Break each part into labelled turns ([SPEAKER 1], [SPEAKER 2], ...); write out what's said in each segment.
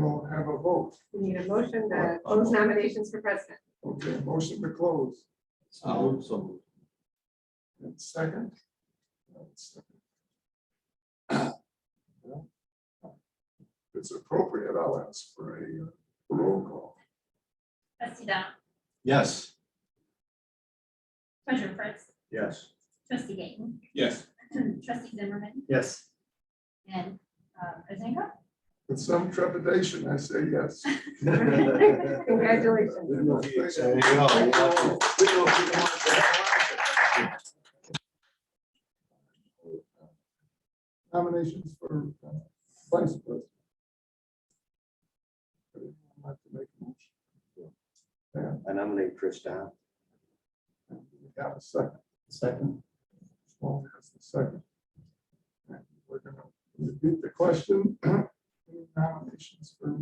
[SPEAKER 1] We'll have a vote.
[SPEAKER 2] We need a motion to close nominations for president.
[SPEAKER 1] Okay, motion to close.
[SPEAKER 3] Oh, so.
[SPEAKER 1] And second. If It's appropriate, I'll ask for a uh, roll call.
[SPEAKER 4] Trustee Dom,
[SPEAKER 3] Yes.
[SPEAKER 4] Treasurer Prince,
[SPEAKER 3] Yes.
[SPEAKER 4] Trustee Gayton,
[SPEAKER 3] Yes.
[SPEAKER 4] Trustee Zimmerman,
[SPEAKER 3] Yes.
[SPEAKER 4] and uh, President Cook.
[SPEAKER 1] With some trepidation, I say yes.
[SPEAKER 2] Congratulations.
[SPEAKER 1] Nominations for uh, vice president. Anyone like to make a motion?
[SPEAKER 5] I nominate Chris Down.
[SPEAKER 1] We Have a second.
[SPEAKER 3] Second.
[SPEAKER 1] Well, that's the second. And We're gonna repeat the question. Nominations for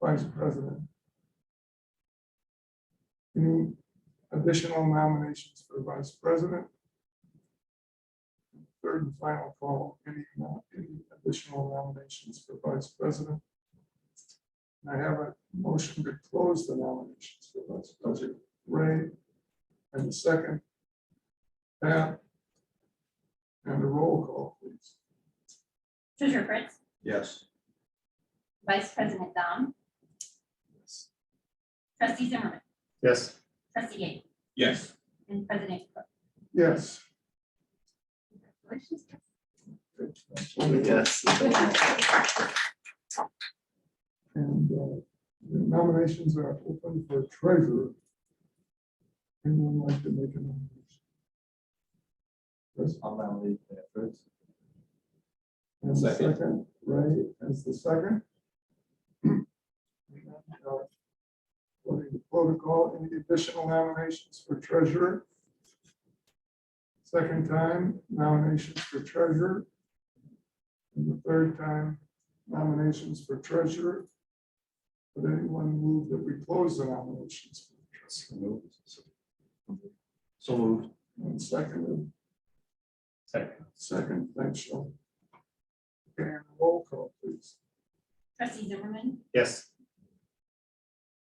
[SPEAKER 1] vice president. Any additional nominations for vice president? Third and final call, any, mo- any additional nominations for vice president? I have a motion to close the nominations for vice president. Ray, and the second. Pat, and a roll call, please.
[SPEAKER 4] Treasurer Prince,
[SPEAKER 3] Yes.
[SPEAKER 4] Vice President Dom, Trustee Zimmerman,
[SPEAKER 3] Yes.
[SPEAKER 4] Trustee Gayton,
[SPEAKER 3] Yes.
[SPEAKER 4] and President Cook.
[SPEAKER 1] Yes.
[SPEAKER 4] Congratulations.
[SPEAKER 3] Yes.
[SPEAKER 1] And uh, the nominations are open for treasurer. Anyone like to make a nomination? Chris,
[SPEAKER 3] I'll nominate that first.
[SPEAKER 1] as the
[SPEAKER 3] Second.
[SPEAKER 1] second, Ray as the second. Voting the protocol, any additional nominations for treasurer? Second time, nominations for treasurer. And the third time, nominations for treasurer. Would anyone move that we close the nominations? for treasurer?
[SPEAKER 3] So moved.
[SPEAKER 1] And second,
[SPEAKER 3] Second.
[SPEAKER 1] second, thanks, Sean. And roll call, please.
[SPEAKER 4] Trustee Zimmerman,
[SPEAKER 3] Yes.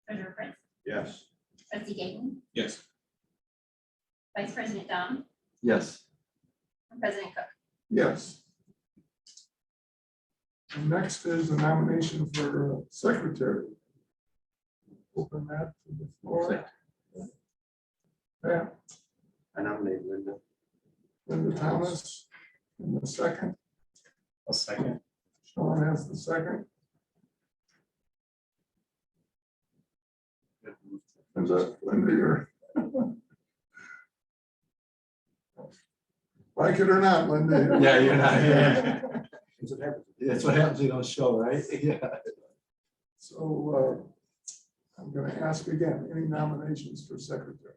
[SPEAKER 4] Treasurer Prince,
[SPEAKER 3] Yes.
[SPEAKER 4] Trustee Gayton,
[SPEAKER 3] Yes.
[SPEAKER 4] Vice President Dom,
[SPEAKER 3] Yes.
[SPEAKER 4] and President Cook.
[SPEAKER 1] Yes. And Next is a nomination for uh, secretary. Open that to the floor. Pat,
[SPEAKER 5] I nominate Linda.
[SPEAKER 1] Linda Thomas, in the second.
[SPEAKER 3] A second.
[SPEAKER 1] Sean has the second. Linda, Linda, you're. Like it or not, Linda.
[SPEAKER 3] Yeah, you're not- yeah.
[SPEAKER 5] That's what happens.
[SPEAKER 3] That's what happens, you don't show, right? Yeah.
[SPEAKER 1] So uh, I'm going to ask again, any nominations for secretary?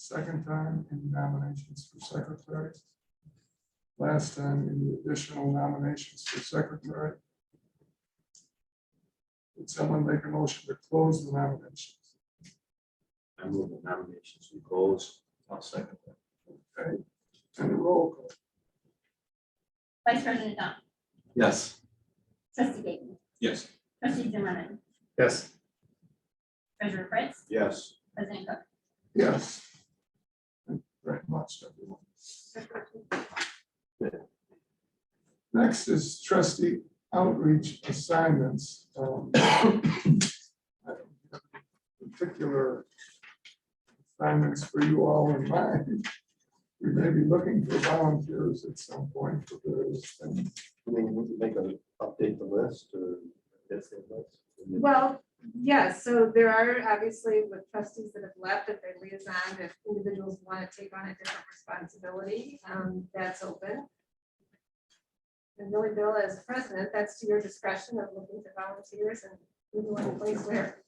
[SPEAKER 1] Second time, any nominations for secretary? Last time, any additional nominations for secretary? Would someone make a motion to close the nominations?
[SPEAKER 5] I move the nominations and goals.
[SPEAKER 3] I'll second.
[SPEAKER 1] Okay, and a roll call.
[SPEAKER 4] Vice President Dom,
[SPEAKER 3] Yes.
[SPEAKER 4] Trustee Gayton,
[SPEAKER 3] Yes.
[SPEAKER 4] Trustee Zimmerman,
[SPEAKER 3] Yes.
[SPEAKER 4] Treasurer Prince,
[SPEAKER 5] Yes.
[SPEAKER 4] President Cook.
[SPEAKER 1] Yes. Thank you Very much, everyone. Next is trustee outreach assignments. Um, I don't have Particular assignments for you all in mind. We may be looking for volunteers at some point for various things.
[SPEAKER 5] I mean, would you make an update the list or? that's the list?
[SPEAKER 2] Well, yes, so there are obviously with trustees that have left, if they're liaison, if individuals want to take on a different responsibility, um, that's open. And really, Bill, as president, that's to your discretion of looking to volunteers and who you want to place where.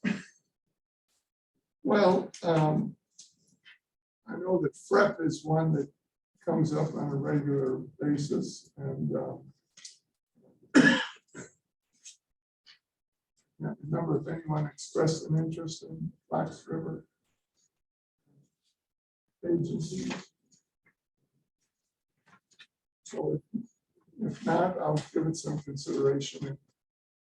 [SPEAKER 1] Well, um, I know that FREP is one that comes up on a regular basis and, um, not remember if anyone expressed an interest in Fox River agency. So if not, I'll give it some consideration and